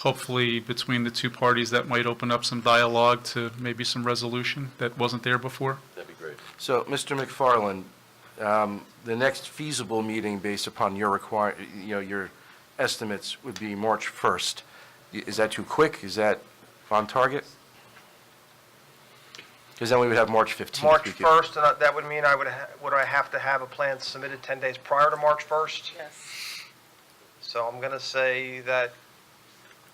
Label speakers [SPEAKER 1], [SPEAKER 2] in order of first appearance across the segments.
[SPEAKER 1] hopefully between the two parties, that might open up some dialogue to maybe some resolution that wasn't there before.
[SPEAKER 2] That'd be great.
[SPEAKER 3] So, Mr. McFarland, um, the next feasible meeting based upon your require, you know, your estimates would be March 1st. I- Is that too quick? Is that on target? Because then we would have March 15th.
[SPEAKER 4] March
[SPEAKER 3] We could-
[SPEAKER 4] 1st, and I- that would mean I would, ha- would I have to have a plan submitted 10 days prior to March 1st?
[SPEAKER 5] Yes.
[SPEAKER 4] So I'm going to say that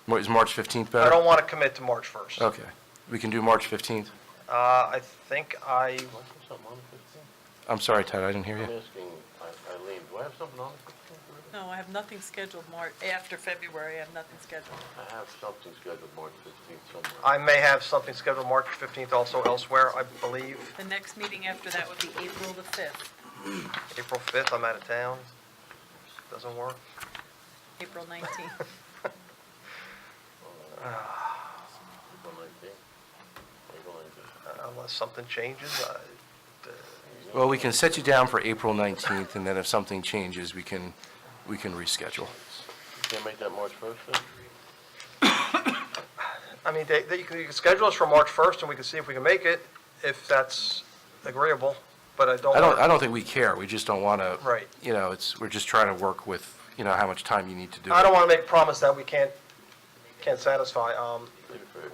[SPEAKER 3] Mar- Is March 15th better?
[SPEAKER 4] I don't want to commit to March 1st. Uh,
[SPEAKER 3] Okay. We can do March 15th?
[SPEAKER 4] I think I,
[SPEAKER 2] Do I have something on the fifteenth?
[SPEAKER 3] I'm sorry, Ted, I didn't hear you.
[SPEAKER 2] I'm asking I- Eileen, do I have something on the fifteenth?
[SPEAKER 5] No, I have nothing scheduled March, after February, I have nothing scheduled.
[SPEAKER 2] I have something scheduled March fifteenth somewhere.
[SPEAKER 4] I may have something scheduled March 15th also elsewhere, I believe,
[SPEAKER 5] The next meeting after that would be April the 5th,
[SPEAKER 4] April 5th, I'm out of town. Doesn't work.
[SPEAKER 5] April 19th.
[SPEAKER 2] April nineteenth. April nineteenth.
[SPEAKER 4] Uh, Unless something changes, Uh, I-
[SPEAKER 3] Well, we can set you down for April 19th, and then if something changes, we can, we can reschedule.
[SPEAKER 2] You Can't make that March first then?
[SPEAKER 4] I mean, they, they, you can, you can schedule us for March 1st, and we can see if we can make it, if that's agreeable, but I don't.
[SPEAKER 3] I don't,
[SPEAKER 4] wanna-
[SPEAKER 3] I don't think we care, we just don't want to.
[SPEAKER 4] Right.
[SPEAKER 3] You know, it's, we're just trying to work with, you know, how much time you need to do it.
[SPEAKER 4] I don't want to make a promise that we can't, can't satisfy. Um,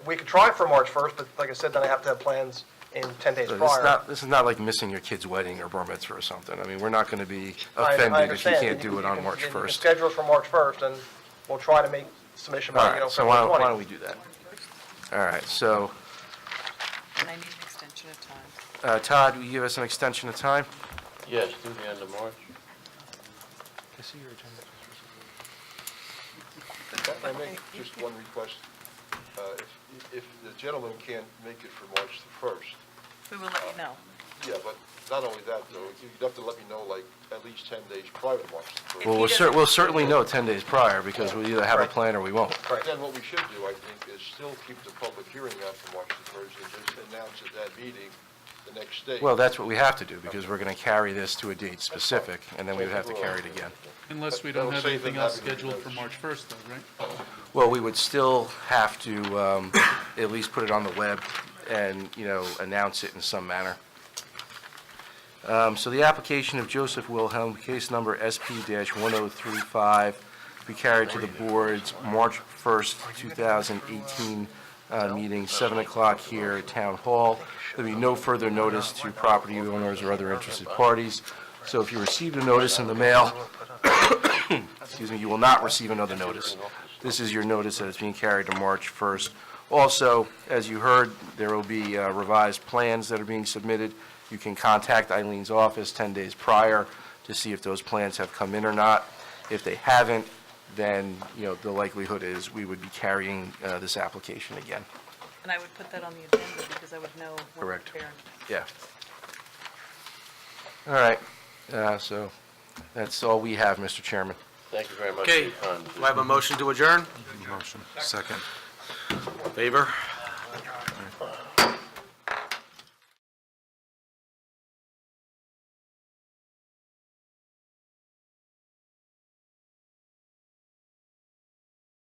[SPEAKER 4] We could try for March 1st, but like I said, then I have to have plans in 10 days
[SPEAKER 3] This is
[SPEAKER 4] prior.
[SPEAKER 3] not, this is not like missing your kid's wedding or bar mitzvah or something. I mean, we're not going to be
[SPEAKER 4] I- I
[SPEAKER 3] offended if you
[SPEAKER 4] understand.
[SPEAKER 3] can't do it on
[SPEAKER 4] can-
[SPEAKER 3] March
[SPEAKER 4] you can
[SPEAKER 3] 1st.
[SPEAKER 4] schedule us for March 1st, and we'll try to make submission
[SPEAKER 3] All
[SPEAKER 4] by, you know,
[SPEAKER 3] right, so why
[SPEAKER 4] February
[SPEAKER 3] don't, why
[SPEAKER 4] 20th.
[SPEAKER 3] don't we do that? All right, so
[SPEAKER 5] And I need an extension of time.
[SPEAKER 3] uh, Todd, will you give us an extension of time?
[SPEAKER 2] Yes, through the end of March.
[SPEAKER 6] I make just one request. Uh, If if the gentleman can't make it for March the 1st,
[SPEAKER 5] We will let you know.
[SPEAKER 6] yeah, but not only that, though, you'd have to let me know, like, at least 10 days prior to March the 1st.
[SPEAKER 3] Well,
[SPEAKER 5] he
[SPEAKER 3] we'll cer,
[SPEAKER 5] doesn't-
[SPEAKER 3] we'll certainly know 10 days prior because we either have a plan or we won't.
[SPEAKER 6] But Then what we should do, I think, is still keep the public hearing out for March the 1st and just announce at that meeting the next day.
[SPEAKER 3] Well, that's what we have to do because we're going to carry this to a date specific and then we would have to carry it again.
[SPEAKER 1] Unless we
[SPEAKER 6] That'll
[SPEAKER 1] don't have
[SPEAKER 6] save
[SPEAKER 1] anything
[SPEAKER 6] them
[SPEAKER 1] else
[SPEAKER 6] having to
[SPEAKER 1] scheduled for
[SPEAKER 6] notice.
[SPEAKER 1] March 1st though, right?
[SPEAKER 3] Well, we would still have to um, at least put it on the web and, you know, announce it in some manner. Um, So the application of Joseph Wilhelm, case number SP-1035, be carried to the board's March 1st, 2018 uh, meeting, 7 o'clock here at Town Hall. There'll be no further notice to property owners or other interested parties. So if you received a notice in the mail, excuse me, you will not receive another notice. This is your notice that it's being carried to March 1st. Also, as you heard, there will be uh, revised plans that are being submitted. You can contact Eileen's office 10 days prior to see if those plans have come in or not. If they haven't, then, you know, the likelihood is we would be carrying uh, this application again.
[SPEAKER 5] And I would put that on the agenda because I would know what to
[SPEAKER 3] Correct.
[SPEAKER 5] prepare.
[SPEAKER 3] Yeah. All right, Uh, so that's all we have, Mr. Chairman.
[SPEAKER 2] Thank you very much for
[SPEAKER 7] Okay,
[SPEAKER 2] your time.
[SPEAKER 7] do I have a motion to adjourn?
[SPEAKER 8] Motion, second.
[SPEAKER 7] Favor?